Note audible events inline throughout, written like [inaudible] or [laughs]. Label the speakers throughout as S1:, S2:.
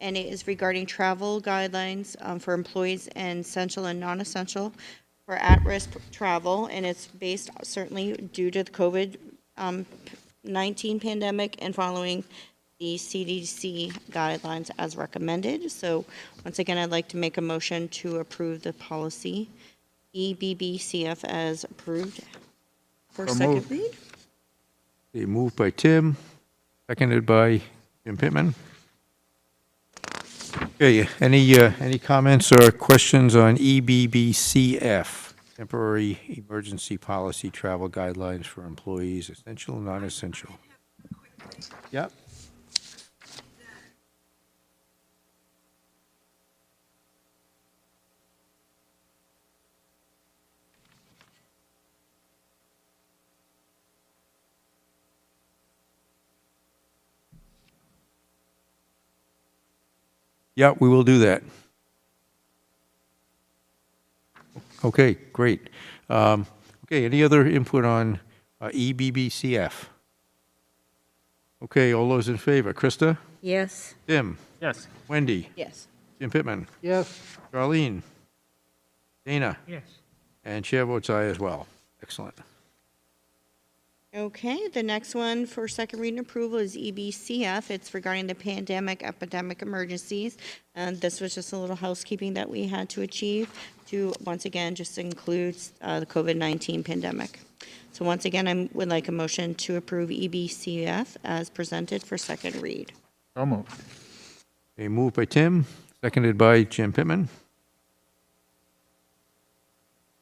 S1: and it is regarding travel guidelines um, for employees and essential and non-essential for at-risk travel, and it's based certainly due to the COVID-19 pandemic and following the CDC guidelines as recommended. So once again, I'd like to make a motion to approve the policy E EBBCF as approved.
S2: For
S3: So
S2: second
S3: moved.
S2: read?
S3: Okay, moved by Tim, seconded by Jim Pittman. Okay, any, uh, any comments or questions on E EBBCF, Temporary Emergency Policy Travel Guidelines for Employees, Essential, and Non-Essential? Yep. Yeah, we will do that. Okay, great. Um, Okay, any other input on uh, EBBCF? Okay, all those in favor, Krista?
S2: Yes.
S3: Tim?
S4: Yes.
S3: Wendy?
S1: Yes.
S3: Jim Pittman?
S5: yes,
S3: Charlene? Dana?
S4: Yes.
S3: And chair votes aye as well. Excellent.
S1: Okay, the next one for second reading approval is E EBCF. It's regarding the pandemic epidemic emergencies. And this was just a little housekeeping that we had to achieve to, once again, just includes uh, the COVID-19 pandemic. So once again, I would like a motion to approve E EBCF as presented for second read.
S5: so moved,
S3: A move by Tim, seconded by Jim Pittman.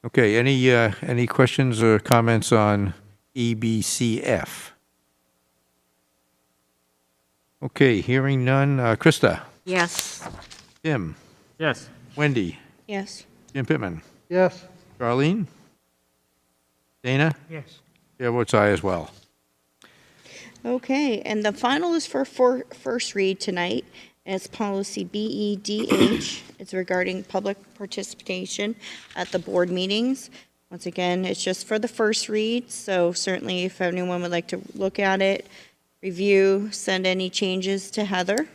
S3: Okay, any, uh, any questions or comments on E EBCF? Okay, hearing none. Uh, Krista?
S2: Yes.
S3: Tim?
S4: Yes.
S3: Wendy?
S1: Yes.
S3: Jim Pittman?
S5: yes,
S3: Charlene? Dana?
S4: Yes.
S3: Chair votes aye as well.
S1: Okay, and the final is for for first read tonight, and it's policy BEDH. It's regarding public participation at the board meetings. Once again, it's just for the first read, so certainly if anyone would like to look at it, review, send any changes to Heather.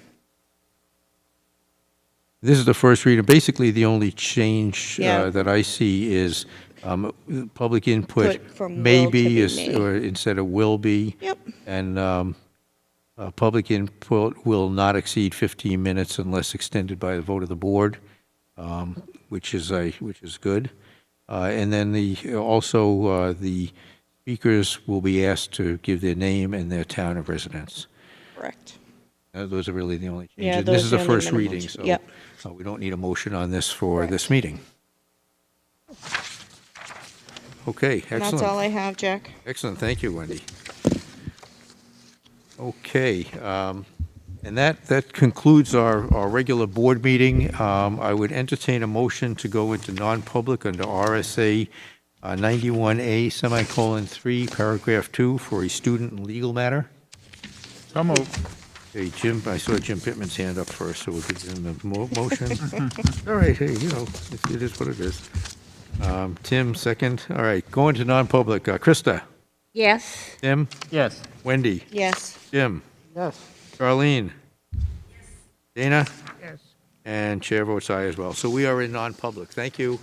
S3: This is the first reader. Basically, the only change
S1: Yeah.
S3: uh, that I see is um, public input
S1: Put from will
S3: may
S1: to
S3: be,
S1: be
S3: is-
S1: may.
S3: or instead of will be.
S1: Yep.
S3: And um, uh, public input will not exceed 15 minutes unless extended by the vote of the board, um, which is a, which is good. Uh, And then the, also, uh, the speakers will be asked to give their name and their town of residence.
S1: Correct.
S3: Uh, Those are really the only
S1: Yeah,
S3: changes. And This
S1: those
S3: is
S1: are
S3: the
S1: the only
S3: first
S1: minimal
S3: reading,
S1: ch-
S3: so
S1: yep.
S3: so we don't need a motion on this for this meeting. Okay,
S1: And that's all
S3: excellent.
S1: I have, Jack.
S3: Excellent, thank you, Wendy. Okay, um, and that, that concludes our, our regular board meeting. Um, I would entertain a motion to go into non-public under RSA uh, 91A semicolon 3, paragraph 2, for a student and legal matter.
S5: so moved,
S3: Hey, Jim, I saw Jim Pittman's hand up first, so we'll give him the mo- motion. [laughs] All right, hey, you know, it- it is what it is. Um, Tim, second. All right, going to non-public. Uh, Krista,
S2: Yes.
S3: Tim,
S4: Yes.
S3: Wendy,
S1: Yes.
S3: Jim,
S5: yes.
S3: Charlene, Dana,
S4: Yes.
S3: and chair votes aye as well. So we are in non-public. Thank you.